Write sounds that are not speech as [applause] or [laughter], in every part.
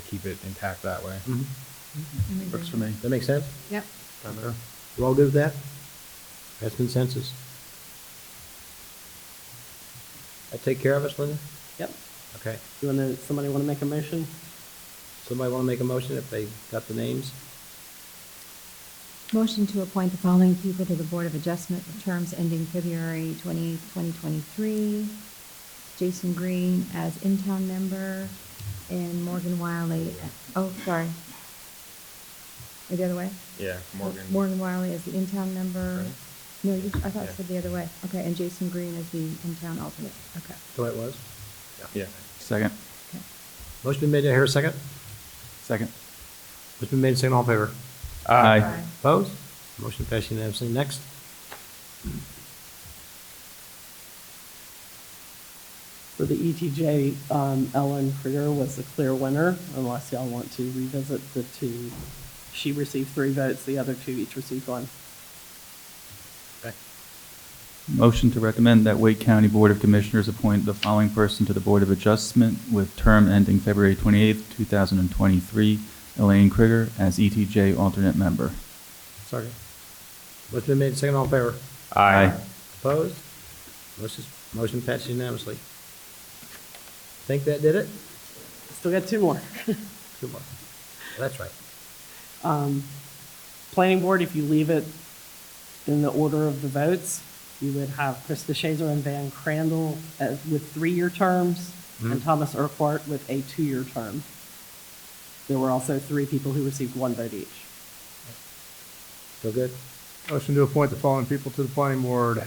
keep it intact that way. Works for me. Mm-hmm. That makes sense? Yep. We're all good with that? That's consensus. That take care of us, Linda? Yep. Okay. You want to, somebody want to make a motion? Somebody want to make a motion if they got the names? Motion to appoint the following people to the Board of Adjustment with terms ending February 28, 2023. Jason Green as in-town member and Morgan Wiley, oh, sorry. Or the other way? Yeah, Morgan. Morgan Wiley as the in-town member. Right. No, you- I thought it Yeah. said the other way. Okay, and Jason Green as the in-town alternate. Okay. So it was. Yeah. Second, okay. Motion been made, do I hear a second? second. Motion been made, second, all in favor? Aye. Aye. Opposed? Motion passed unanimously. Next. For the ETJ, um, Ellen Creer was the clear winner, unless y'all want to revisit the two. She received three votes, the other two each received one. Motion to recommend that Wake County Board of Commissioners appoint the following person to the Board of Adjustment with term ending February 28th, 2023, Elaine Krigger as ETJ alternate member. Second. Motion been made, second, all in favor? Aye. Opposed? Motion, motion passed unanimously. Think that did it? Still got two more. Two more. That's right. Um, Planning Board, if you leave it in the order of the votes, you would have Krista Shazer and Van Crandall as, with three-year terms, and Thomas Urquhart with a two-year term. There were also three people who received one vote each. Feel good? Motion to appoint the following people to the planning board,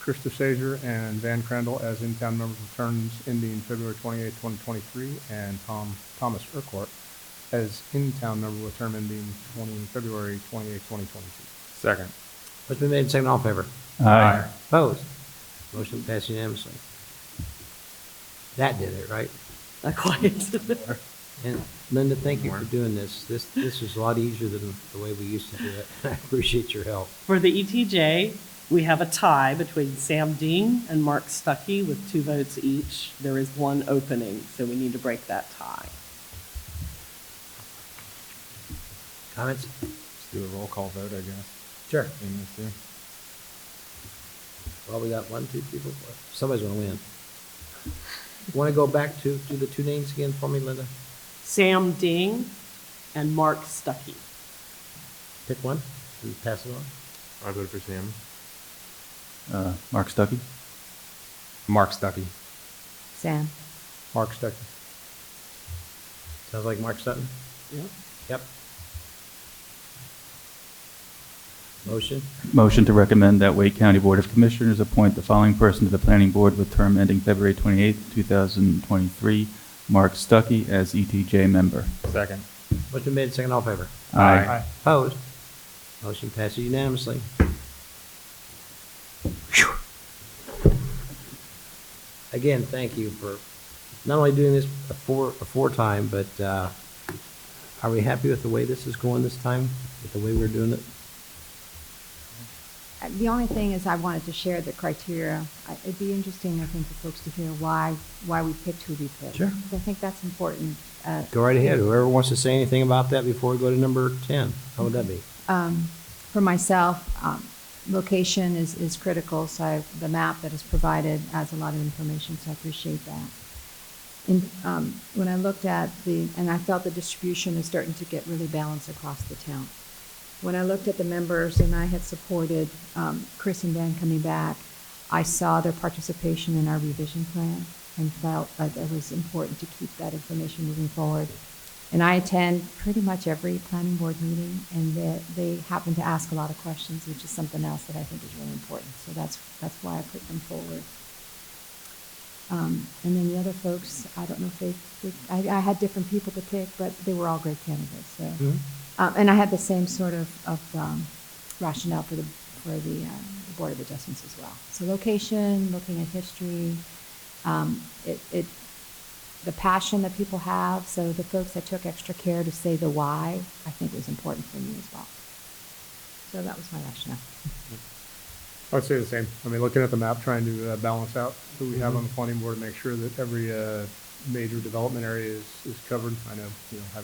Krista Sager and Van Crandall as in-town members with terms ending February twenty-eighth, twenty twenty-three, and Tom, Thomas Urquhart as in-town member with term ending twenty, February twenty-eighth, twenty twenty-two. Second. Motion been made, second, all in favor? Aye. Opposed? Motion passed unanimously. That did it, right? Not quite. [laughs] And Linda, thank you for doing this. This, this is a lot easier than the way we used to do it. [laughs] I appreciate your help. For the ETJ, we have a tie between Sam Dean and Mark Stuckey with two votes each. There is one opening, so we need to break that tie. Comments? Let's do a roll call vote, I guess. Sure. in this here. Well, we got one, two, three, four, five. Somebody's gonna win. Want to go back to, to the two names again for me, Linda? Sam Ding and Mark Stuckey. Pick one and pass it on. I voted for Sam. Uh, Mark Stuckey? Mark Stuckey. Sam? Mark Stecker. Sounds like Mark Sutton? Yep. Yep. Motion? Motion to recommend that Wake County Board of Commissioners appoint the following person to the Planning Board with term ending February 28th, 2023, Mark Stuckey as ETJ member. Second. Motion made, second, all in favor? Aye. Opposed? Motion passes unanimously. Phew. Again, thank you for not only doing this a four, a four time, but, uh, are we happy with the way this is going this time? With the way we're doing it? Uh, The only thing is I wanted to share the criteria. I- It'd be interesting, I think, for folks to hear why, why we picked who we picked. Sure. I think that's important. Uh, Go right ahead. Whoever wants to say anything about that before we go to number ten, how would that be? um, For myself, um, location is, is critical, so I- the map that is provided adds a lot of information, so I appreciate that. And um, when I looked at the, and I felt the distribution is starting to get really balanced across the town. When I looked at the members and I had supported um, Chris and Dan coming back, I saw their participation in our revision plan and felt that it was important to keep that information moving forward. And I attend pretty much every planning board meeting, and they, they happen to ask a lot of questions, which is something else that I think is really important. So that's, that's why I put them forward. Um, and then the other folks, I don't know if they, they- I, I had different people to pick, but they were all great candidates, so. Um, and I had the same sort of, of, um, rationale for the, for the, uh, the Board of Adjustments as well. So location, looking at history, um, it, it, the passion that people have, so the folks that took extra care to say the why, I think was important for me as well. So that was my rationale. I'd say the same. I mean, looking at the map, trying to uh, balance out who we Mm-hmm. have on the planning board, and make sure that every uh, major development area is, is covered. I know, you know, having